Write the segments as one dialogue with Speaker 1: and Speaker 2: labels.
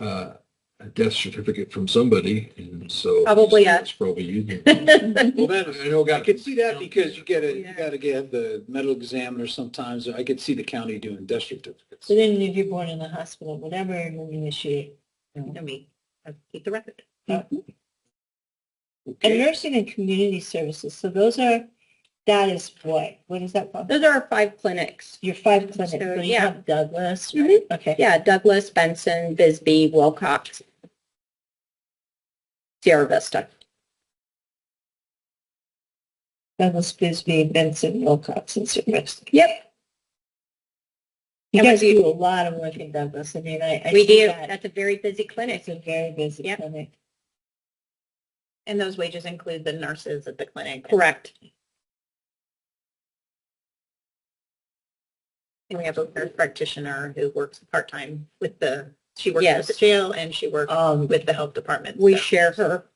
Speaker 1: uh, a death certificate from somebody, and so.
Speaker 2: Probably us.
Speaker 1: It's probably you.
Speaker 3: Well, then,
Speaker 1: I know,
Speaker 3: I
Speaker 1: got
Speaker 3: could see that because you gotta,
Speaker 2: Yeah.
Speaker 3: you gotta get the medical examiner sometimes. I could see the county doing death certificates.
Speaker 4: So then if you're born in the hospital, whatever, and then you initiate.
Speaker 2: I mean, I keep the record.
Speaker 4: Mm-hmm. And
Speaker 3: Okay.
Speaker 4: nursing and community services, so those are, that is what, what is that called?
Speaker 2: Those are our five clinics.
Speaker 4: Your five clinics,
Speaker 2: So,
Speaker 4: so you
Speaker 2: yeah.
Speaker 4: have Douglas, right?
Speaker 2: Mhm.
Speaker 4: Okay.
Speaker 2: Yeah, Douglas, Benson, Bisbee, Wilcox, Sierra Vista.
Speaker 4: Douglas, Bisbee, Benson, Wilcox, and Silvestre.
Speaker 2: Yep,
Speaker 4: You
Speaker 2: And we
Speaker 4: guys
Speaker 2: do-
Speaker 4: do a lot of work in Douglas, I mean, I. I
Speaker 2: we
Speaker 4: see
Speaker 2: do.
Speaker 4: that.
Speaker 2: That's a very busy clinic.
Speaker 4: It's a very busy
Speaker 2: Yep.
Speaker 4: clinic.
Speaker 2: And those wages include the nurses at the clinic. Correct. And we have a nurse practitioner who works part-time with the, she works at the jail and she works
Speaker 4: Um,
Speaker 2: with the health department. We
Speaker 4: so-
Speaker 2: share her.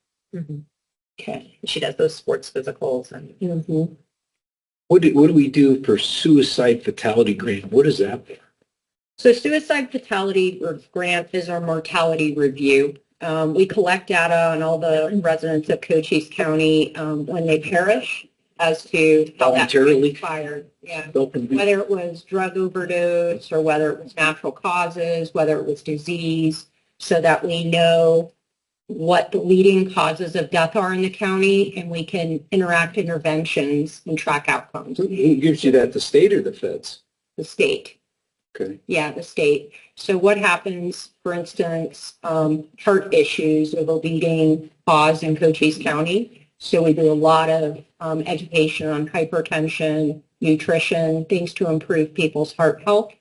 Speaker 4: okay.
Speaker 2: She does those sports physicals and Mm-hmm.
Speaker 4: Mhm.
Speaker 3: What do, what do we do for suicide fatality grant? What is that?
Speaker 2: So suicide fatality re- grant is our mortality review. Um, we collect data on all the residents of Cochise County um, when they perish as to how that
Speaker 3: Voluntarily?
Speaker 2: expired. Yeah.
Speaker 3: Open-
Speaker 2: Whether it was drug overdose or whether it was natural causes, whether it was disease, so that we know what the leading causes of death are in the county and we can interact interventions and track outcomes.
Speaker 3: Who who gives you that, the state or the feds?
Speaker 2: The state.
Speaker 3: Okay.
Speaker 2: Yeah, the state. So what happens, for instance, um, heart issues of a leading cause in Cochise County? So we do a lot of um, education on hypertension, nutrition, things to improve people's heart health.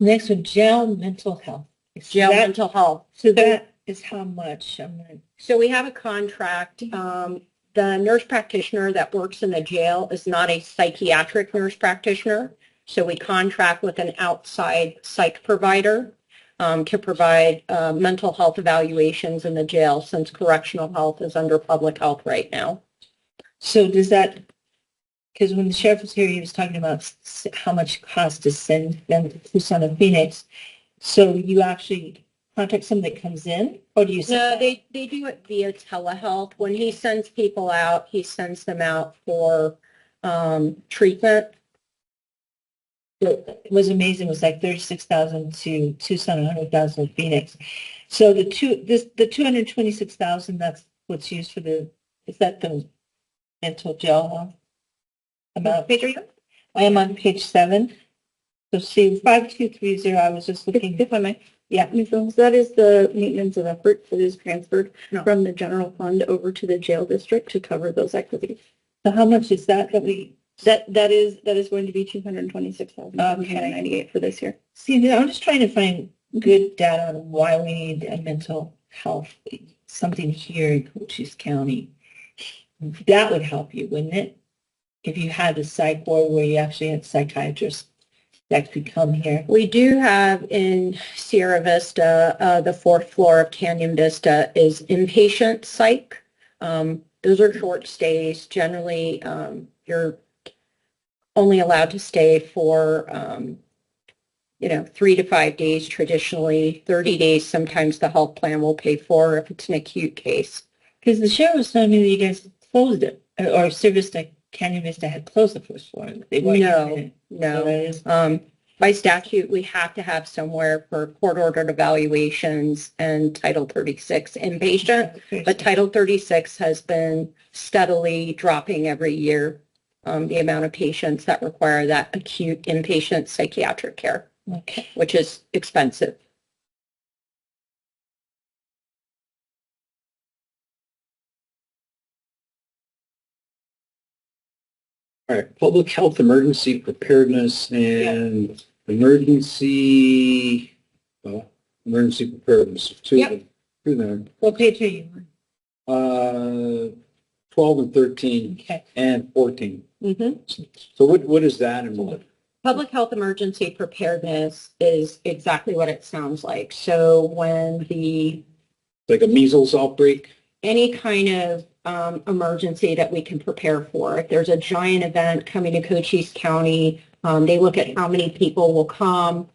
Speaker 4: Next one, jail mental health. Is that-
Speaker 2: mental health.
Speaker 4: So that is how much, I'm gonna,
Speaker 2: So we have a contract. Um, the nurse practitioner that works in the jail is not a psychiatric nurse practitioner. So we contract with an outside psych provider um, to provide uh, mental health evaluations in the jail since correctional health is under public health right now.
Speaker 4: so does that, because when the sheriff was here, he was talking about s- how much it costs to send them to Tucson and Phoenix. So you actually contact someone that comes in, or do you? send
Speaker 2: No,
Speaker 4: that?
Speaker 2: they, they do it via telehealth. When he sends people out, he sends them out for um, treatment.
Speaker 4: that was amazing was like thirty-six thousand to Tucson, a hundred thousand to Phoenix. So the two, this, the two hundred twenty-six thousand, that's what's used for the, is that the mental jail one? Amount,
Speaker 2: Page are you?
Speaker 4: I am on page seven. So see, five, two, three, zero, I was just looking.
Speaker 5: If I may.
Speaker 4: Yeah.
Speaker 5: Ms. Holmes, that is the maintenance of effort that is transferred
Speaker 4: No.
Speaker 5: from the general fund over to the jail district to cover those activities.
Speaker 4: So how much is that that we,
Speaker 5: That, that is, that is going to be two hundred and twenty-six thousand, seven hundred and ninety-eight for this year.
Speaker 4: see, I'm just trying to find good data on why we need a mental health, something here in Cochise County. That would help you, wouldn't it? If you had a psych ward where you actually had psychiatrists that could come here.
Speaker 2: We do have in Sierra Vista, uh, the fourth floor of Canyon Vista is inpatient psych. Um, those are short stays. Generally, um, you're only allowed to stay for, um, you know, three to five days traditionally, 30 days. Sometimes the health plan will pay for if it's an acute case.
Speaker 4: Because the sheriff was telling me that you guys closed it, or- or Service Vista, Canyon Vista had closed the first floor. and they weren't
Speaker 2: No,
Speaker 4: using it.
Speaker 2: No.
Speaker 4: So that is-
Speaker 2: Um, by statute, we have to have somewhere for court-ordered evaluations and Title 36 inpatient. Uh, But Title 36 has been steadily dropping every year, um, the amount of patients that require that acute inpatient psychiatric care,
Speaker 4: Okay.
Speaker 2: which is expensive.
Speaker 3: All right, public health emergency preparedness and emergency, well, emergency preparedness, two of them. Two of them.
Speaker 4: What page are you
Speaker 3: Uh,
Speaker 4: on?
Speaker 3: 12 and 13
Speaker 4: Okay.
Speaker 3: and 14.
Speaker 2: Mm-hmm.
Speaker 3: So what, what is that and what?
Speaker 2: Public health emergency preparedness is exactly what it sounds like. So when the
Speaker 3: Like a measles outbreak?
Speaker 2: any kind of um, emergency that we can prepare for. If there's a giant event coming to Cochise County, um, they look at how many people will come,